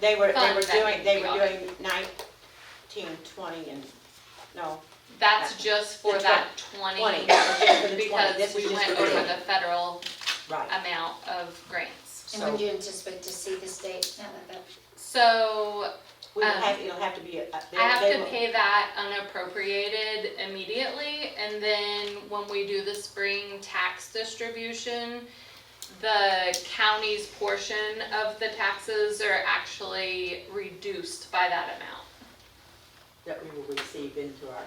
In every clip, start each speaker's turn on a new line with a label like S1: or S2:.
S1: They were, they were
S2: Fund that
S1: doing, they
S2: we
S1: were
S2: got.
S1: doing nineteen, twenty and, no,
S2: That's just for
S1: The
S2: that twenty,
S1: twenty, just for the twenty,
S2: because
S1: this was
S2: we
S1: just for
S2: went
S1: the
S2: over
S1: twenty.
S2: the federal
S1: Right,
S2: amount of grants.
S3: And would
S1: so
S3: you anticipate to see this date now that that,
S2: So
S1: we will
S2: um,
S1: have, it'll have to be, a-
S2: I have
S1: they
S2: to
S1: will,
S2: pay that unappropriated immediately, and then when we do the spring tax distribution, the county's portion of the taxes are actually reduced by that amount
S1: that we will receive into our,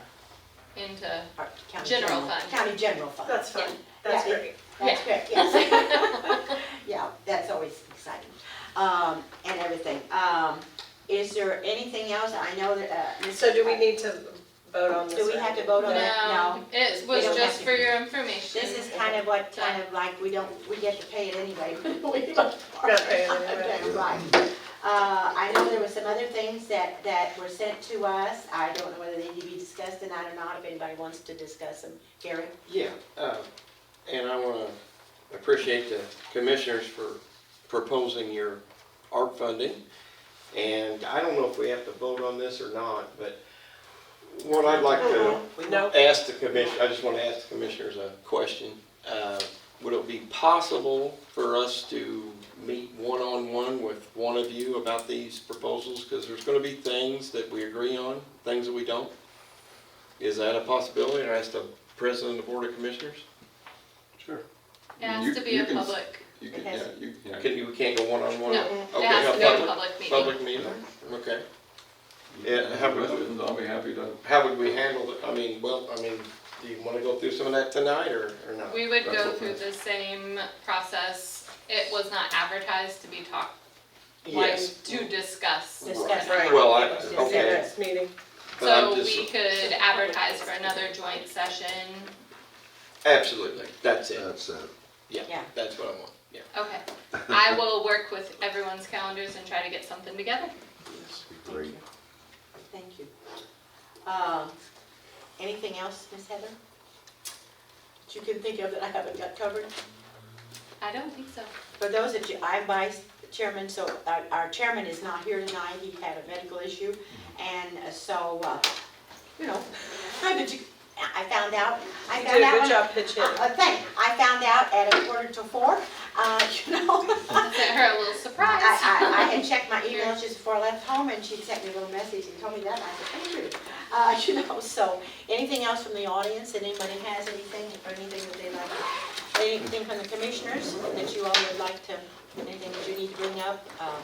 S2: into,
S1: our county
S2: General
S1: general,
S2: fund.
S1: county general fund.
S4: That's fun, that's
S1: Yeah.
S4: great.
S1: That's good, yes. Yeah, that's always exciting, um, and everything. Um, is there anything else? I know that, uh. Ms.
S4: So do we need to vote on this?
S1: Do we have to vote on it?
S2: no, it
S1: we
S2: was
S1: don't have
S2: just
S1: to.
S2: for your information.
S1: This is kind of what, kind of like, we don't, we get to pay it anyway. We don't.
S4: Not pay it anyway.
S1: Okay, Right. Uh, I know there were some other things that, that were sent to us. I don't know whether they need to be discussed tonight or not, if anybody wants to discuss them. Gary?
S5: Yeah, um, and I want to appreciate the commissioners for proposing your ARP funding. And I don't know if we have to vote on this or not, but what I'd like to
S4: No,
S5: ask the commission, I just want to ask the commissioners a question. Uh, Would it be possible for us to meet one-on-one with one of you about these proposals? Because there's going to be things that we agree on, things that we don't. Is that a possibility, or ask the president of the board of commissioners?
S6: Sure.
S2: It has
S6: You-
S2: to be
S6: you
S2: a
S6: can s-
S2: public,
S6: You can,
S1: It has-
S6: yeah, you, yeah,
S5: Can you, we can't go one-on-one?
S2: no,
S5: Okay,
S2: it has to be
S5: a
S2: a public meeting.
S5: Public meeting, okay.
S6: you
S5: Yeah,
S6: can
S5: have
S6: ask
S5: a-
S6: questions, I'll be happy to.
S5: How would we handle it? I mean, well, I mean, do you want to go through some of that tonight, or, or not?
S2: We would
S6: That's
S2: go
S6: okay.
S2: through the same process. It was not advertised to be talked, like,
S5: Yes.
S2: to discuss.
S1: Discuss.
S4: Right.
S5: Well, I-
S1: Just
S4: it's the
S5: okay.
S4: next meeting.
S5: But I'm
S2: So
S5: just-
S2: we could advertise for another joint session.
S5: Absolutely, that's it.
S6: That's, uh,
S1: Yeah.
S5: Yeah, that's what I want, yeah.
S2: Okay. I will work with everyone's calendars and try to get something together.
S1: Thank you. Thank you. Um, anything else, Miss Heather? That you can think of that I haven't got covered?
S2: I don't think so.
S1: For those that you, I'm vice chairman, so our- our chairman is not here tonight, he had a medical issue, and uh, so, uh, you know, I did you, I found out, I
S4: You
S1: found
S4: did a
S1: out.
S4: good job pitching.
S1: Uh, thank, I found out at a quarter to four, uh, you know.
S2: I sent her a little surprise.
S1: I, I, I had checked my emails just before I left home, and she sent me a little message and told me that, and I said, thank you. Uh, you know, so, anything else from the audience, that anybody has anything, or anything that they like, anything from the commissioners that you all would like to, anything that you need to bring up, um,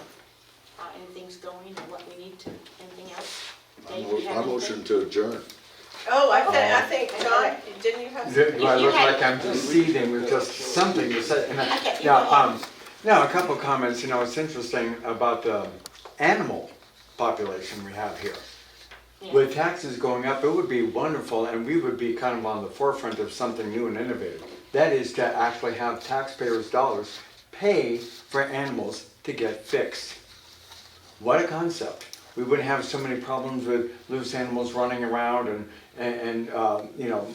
S1: how anything's going, or what we need to, anything else?
S7: I
S1: Dave,
S7: mo-
S1: you have
S7: I
S1: anything?
S7: motion to adjourn.
S4: Oh, I think, I think, John, didn't you have?
S8: Do I
S1: you
S8: look
S1: had-
S8: like I'm proceeding with just something to say? And I-
S1: Okay, you
S8: Yeah,
S1: go ahead.
S8: um, no, a couple of comments, you know, it's interesting about the animal population we have here.
S1: Yeah.
S8: With taxes going up, it would be wonderful, and we would be kind of on the forefront of something new and innovative. That is to actually have taxpayers' dollars pay for animals to get fixed. What a concept. We wouldn't have so many problems with loose animals running around and, and, and, uh, you know,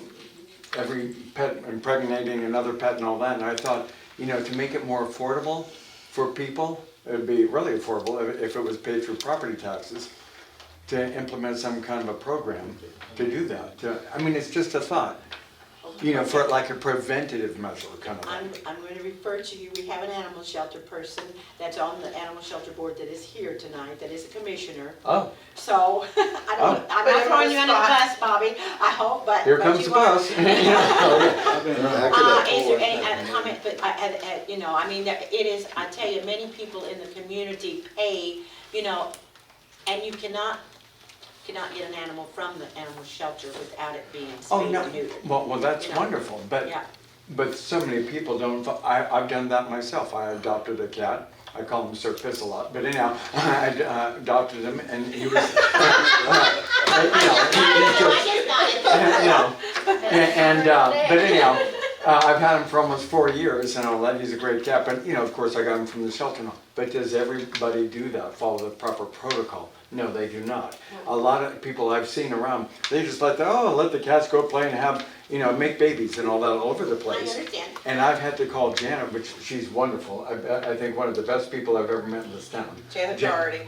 S8: every pet impregnating another pet and all that. And I thought, you know, to make it more affordable for people, it'd be really affordable if, if it was paid through property taxes to implement some kind of a program to do that. To- I mean, it's just a thought, you know, for like a preventative measure kind of
S1: I'm,
S8: thing.
S1: I'm going to refer to you, we have an animal shelter person that's on the animal shelter board that is here tonight, that is a commissioner.
S8: Oh,
S1: So, I
S8: Oh.
S1: don't, I'm
S4: Put him
S1: not
S4: on
S1: throwing
S4: the
S1: you under the
S4: spot.
S1: bus, Bobby, I hope, but.
S8: here
S1: but
S8: comes
S1: you
S8: the
S1: are.
S8: bus.
S7: Back it up
S1: Uh, is there
S7: forward.
S1: any other comment, but I, I, I- you know, I mean, there- it is, I tell you, many people in the community pay, you know, and you cannot, cannot get an animal from the animal shelter without it being
S8: Oh,
S1: spayed
S8: no,
S1: or neutered.
S8: well, well, that's
S1: You know.
S8: wonderful, but
S1: Yeah,
S8: But so many people don't, fo- I, I've done that myself. I adopted a cat. I call him Sir Piss a lot, but anyhow, I ad- uh, adopted him and he was, uh, you know, he- he's just, you know. And, and, uh, but anyhow, uh, I've had him for almost four years and I love, he's a great cat, but you know, of course, I got him from the shelter and all. But does everybody do that, follow the proper protocol? No, they do not. A lot of people I've seen around, they just let the, oh, let the cats go play and have, you know, make babies and all that all over the
S1: I
S8: place.
S1: understand.
S8: And I've had to call Janet, which she's wonderful. I, I think one of the best people I've ever met in this town.
S4: Janet
S8: Jan-
S4: Doherty.